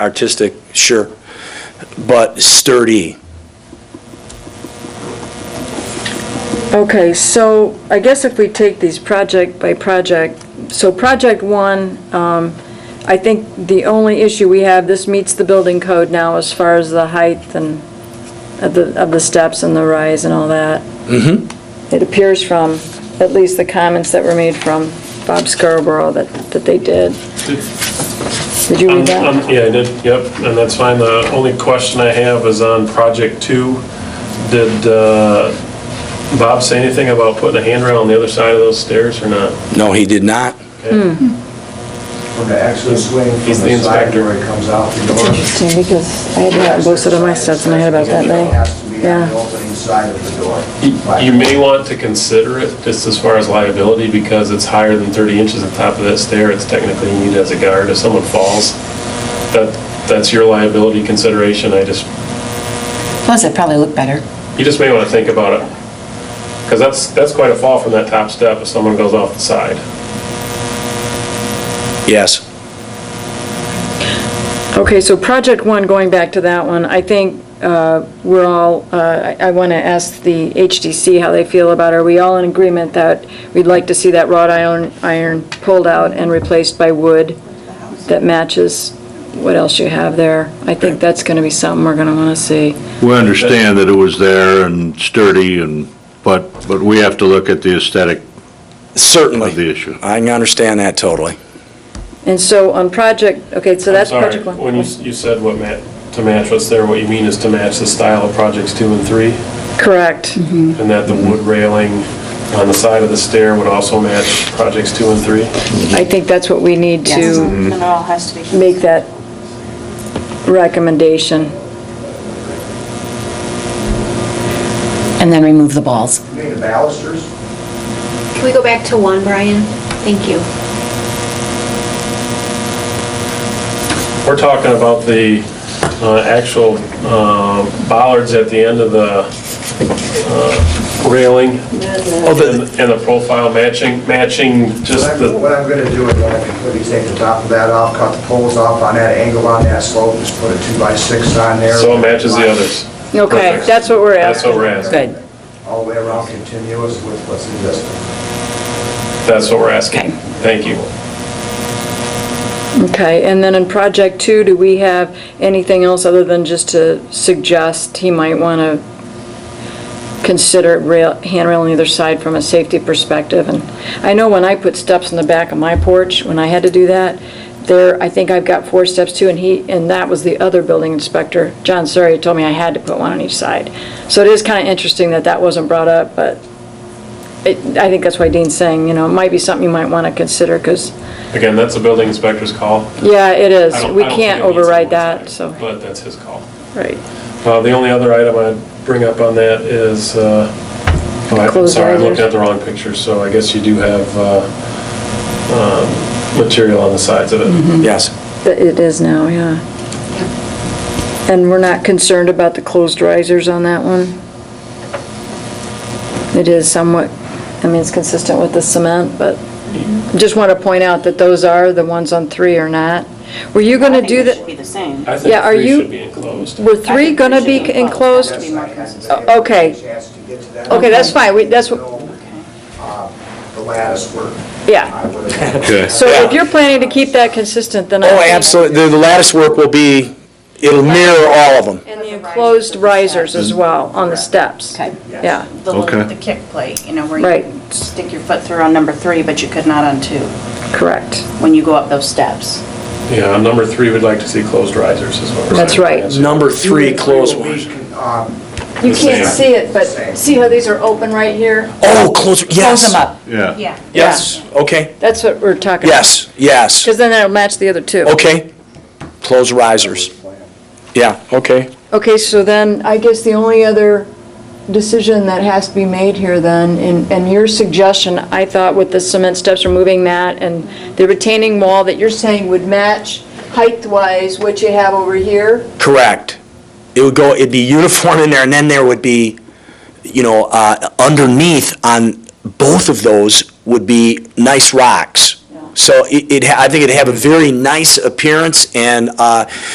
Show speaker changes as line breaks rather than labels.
artistic, sure, but sturdy.
Okay, so I guess if we take these project by project, so project one, um, I think the only issue we have, this meets the building code now as far as the height and of the, of the steps and the rise and all that. Mm-hmm. It appears from, at least the comments that were made from Bob Scarborough that, that they did. Did you read
Um,
that?
um, Yeah, I did, yep, and that's fine. The only question I have is on project two. Did uh, Bob say anything about putting a handrail on the other side of those stairs or not?
No, he did not.
When the exit swing
He's
from
the
the side
inspector.
door comes out the door.
Interesting, because I had that posted on my steps and I had about that
It
many.
has to be
Yeah.
on the opening side of the door.
You-
Like,
You may want to consider it just as far as liability because it's higher than 30 inches on top of that stair. It's technically needed as a guard. If someone falls, that, that's your liability consideration. I just,
Plus, it probably looked better.
you just may want to think about it. Because that's, that's quite a fall from that top step if someone goes off the side.
Yes.
Okay, so project one, going back to that one, I think uh, we're all, uh, I want to ask the HDC how they feel about, it. are we all in agreement that we'd like to see that wrought iron, iron pulled out and replaced by wood that matches what else you have there? I think that's going to be something we're going to want to see.
We understand that it was there and sturdy and, but, but we have to look at the aesthetic of the
Certainly.
issue.
I can understand that totally.
And so on project, okay, so
I'm
that's
sorry,
project one.
When you, you said what ma, to match what's there, what you mean is to match the style of projects two and three?
Correct.
And that the wood railing on the side of the stair would also match projects two and three?
I think that's what we need to
And it all has to be.
make that recommendation.
And then remove the balls.
You mean the balusters?
Can we go back to one, Brian? Thank you.
We're talking about the uh, actual uh, bollards at the end of the uh, railing and and the profile matching, matching
What
just
I'm-
the,
what I'm gonna do is I'm gonna completely take the top of that off, cut the poles off on that angle on that slope, just put a two by six on there.
so it matches the others.
Okay,
Perfect.
that's what we're
That's
asking.
what we're asking.
Good.
All the way around continuous with what's existing.
That's what we're asking.
Okay.
Thank you.
Okay, and then in project two, do we have anything else other than just to suggest he might want to consider rail, handrail on either side from a safety perspective? And I know when I put steps in the back of my porch, when I had to do that, there, I think I've got four steps too, and he, and that was the other building inspector, John Surrey, told me I had to put one on each side. So it is kind of interesting that that wasn't brought up, but it, I think that's why Dean's saying, you know, it might be something you might want to consider, because
Again, that's a building inspector's call.
yeah, it is.
I don't-
We
I don't
can't
think it needs
override
to go
that,
inside,
so,
But that's his call.
right.
Uh, The only other item I'd bring up on that is, uh, oh, I'm
Closed
sorry, I looked
risers.
at the wrong picture, so I guess you do have uh, um, material on the sides of it.
Mm-hmm.
Yes.
Oh,
But It is now, yeah. And we're not concerned about the closed risers on that one? It is somewhat, I mean, it's consistent with the cement, but just want to point out that those are, the ones on three are not. Were you going to do
I think they should
that?
be the same.
I think
Yeah, are
three
you-
should be enclosed.
Were three going to be
should be
enclosed?
Be more consistent.
Oh, okay.
Chance to get to that.
Okay, that's fine. We- that's what-
Uh, The lattice work.
Yeah.
I would-
Okay.
So if you're planning to keep that consistent, then I...
Oh,
think-
absolutely. The the lattice work will be, it'll mirror all of them.
And the enclosed risers as well, on the steps.
Okay.
Yeah.
The little,
Okay.
the kick plate, you know, where you
Right.
can stick your foot through on number three, but you could not on two,
Correct.
when you go up those steps.
Yeah, on number three, we'd like to see closed risers as well.
That's right.
Number three, closed
Will be,
ones.
um,
You
The
can't
same.
see it, but see how these are open right here?
Oh, close, yes.
Close them up.
Yeah.
Yes, okay.
That's what we're talking about.
Yes, yes.
Because then that'll match the other two.
Okay. Close risers. Yeah, okay.
Okay, so then, I guess the only other decision that has to be made here then, and, and your suggestion, I thought with the cement steps removing that and the retaining wall that you're saying would match height-wise what you have over here?
Correct. It would go, it'd be uniform in there, and then there would be, you know, uh, underneath on both of those would be nice rocks. So it, it'd ha- I think it'd have a very nice appearance, and uh,